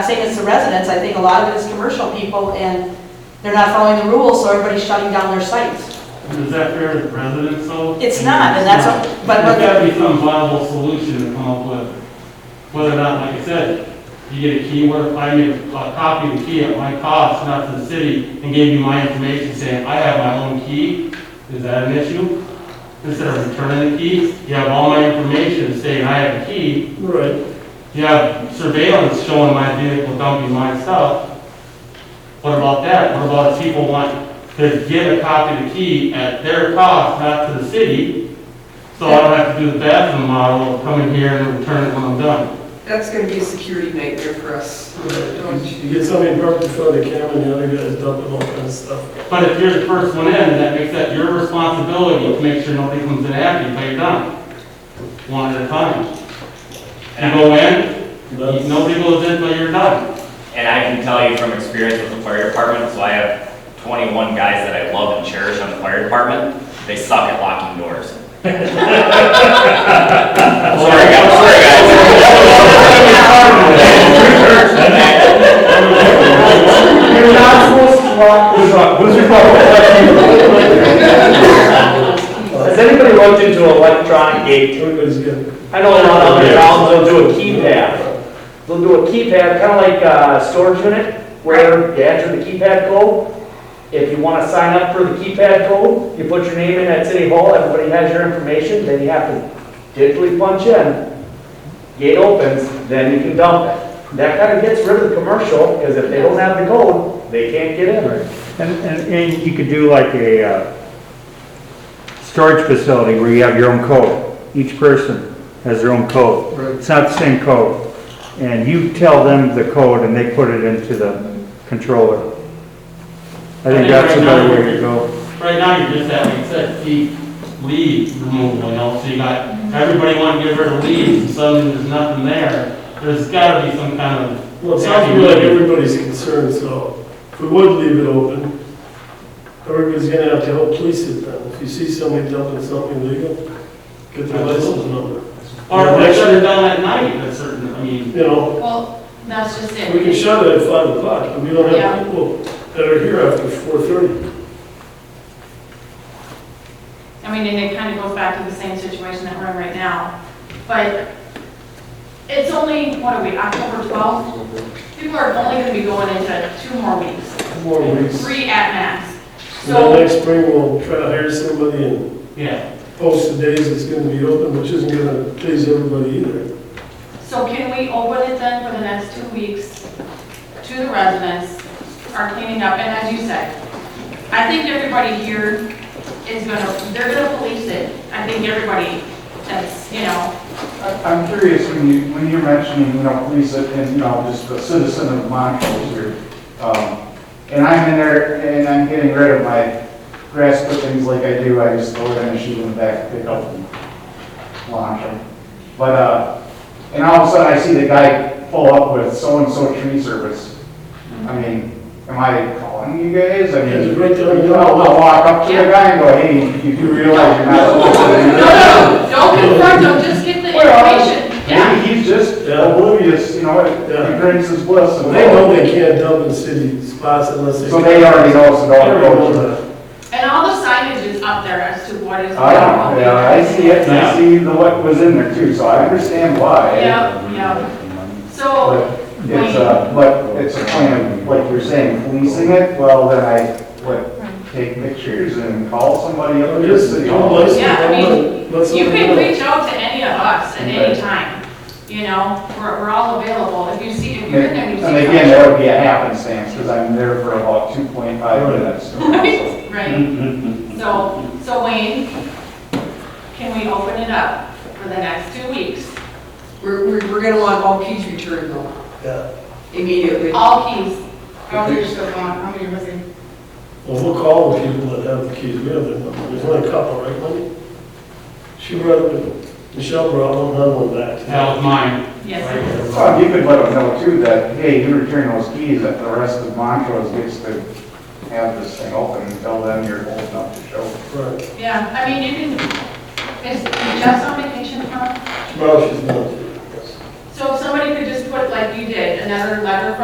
I'm saying it's the residents, I think a lot of it is commercial people, and they're not following the rules, so everybody's shutting down their sites. Is that fair to the residents though? It's not, and that's, what- but, There's but, gotta be some viable solution to come up with, whether or not, like I said, you get a key, what if I make a copy of the key at my cost, not to the city, and gave you my information saying, I have my own key, is that an issue? Instead of returning the key, you have all my information saying I have a key, Right, you have surveillance showing my vehicle dumping my stuff. What about that? What about if people want to get a copy of the key at their cost, not to the city? So I don't have to do the bathroom model, of come in here and return it when I'm done. That's gonna be a security nightmare for us. Don't you? you get somebody parked in front of the camera and the other guy's dumping all kinds of stuff. But if you're the first one in, that makes that your responsibility to make sure nobody comes in after you, but you're done. One at a time. You go in, That's- nobody goes in till you're done. And I can tell you from experience with the fire department, so I have 21 guys that I love and cherish on the fire department. They suck at locking doors. Sorry, guys. Sorry, guys. You're not supposed to walk the truck, who's your Has anybody looked into electronic gate? Everybody's good. I know a lot of other towns, they'll do a keypad. They'll do a keypad, kind of like a storage unit, where you enter the keypad code. If you want to sign up for the keypad code, you put your name in at City Hall, everybody has your information, then you have to digitally punch in. Gate opens, then you can dump it. That kind of gets rid of the commercial, because if they don't have the code, they can't get in. And, and, and you could do like a, uh, storage facility where you have your own code. Each person has their own code. It's not the same code. And you tell them the code and they put it into the controller. I think that's a better way to go. Right now, you're just having, like I said, key lead removal, you know, so you got, everybody wanting to get rid of leaves, and suddenly there's nothing there. There's gotta be some kind of, Well, it sounds to me like everybody's concerned, so if we would leave it open, everybody's gonna have to help police it then. If you see somebody dumping something illegal, get their license number. or they shut it down at night, that's certain, I mean, You know, Well, that's just it. we can shut it at five o'clock, but we don't Yeah. have people that are here after four thirty. I mean, and it kind of goes back to the same situation that we're in right now. But it's only, what are we, October 12th? People are only going to be going into two more weeks, Four weeks. three at max. And then So, next spring, we'll try to hire somebody and yeah. post the days it's gonna be open, which isn't gonna please everybody either. so can we open it then for the next two weeks to the residents, are cleaning up, and as you said, I think everybody here is going to, they're going to police it. I think everybody that's, you know, I- I'm curious, when you, when you're mentioning, you know, police and, you know, just a citizen of Montrose here, um, and I'm in there and I'm getting rid of my grass clippings like I do, I just go in and shoot them back, pick up and launch them. But, uh, and all of a sudden I see the guy pull up with so-and-so tree service. I mean, am I calling you guys? I Yeah, mean, just right there, you know. I'll I'll walk up to the guy and go, hey, you do realize you're not supposed to do No, that? no, don't confront them, just get the Well, information, yeah. Maybe he's just uh, Yeah. oblivious, you know, uh, Yeah. he drinks his bliss. So and- They know they can't dump in city spots unless they. So they already know it's a dog road. And all the signage is up there as to what is. I don't, know, Ah, yeah, I see it, and I see the, what was in there too, so I understand why. Yep, yep. So, But it's uh, a, but it's a plan, like you're saying, policing it, well, then I, what, take pictures and call somebody up Or to the just, "Oh, you city know, hall. let's- yeah, I mean, let's- you can reach out to any of us at any time, you know, we're, we're all available, if you see, if And you're in there, and you see. and again, that would be a happenstance, because I'm there for about two point five Right. minutes. something, Right, Mm-hmm. so, so Wayne, can we open it up for the next two weeks, We're, we're, we're gonna want all keys returned though, Yeah. immediately. all keys? How many are still gone, how many was in? Well, we'll call the people that have the keys, we have their number, there's only a couple, right, Lenny? She brought, Michelle brought them, none went back. That was mine. Yes. Right there. Well, you could let them know too that, hey, you return those keys, that the rest of Montrose gets to have this thing open until then you're old enough to show. Right, Yeah, I mean, you can, is Jess on vacation, huh? tomorrow she's not. So So if somebody could just put, like you did, another letter from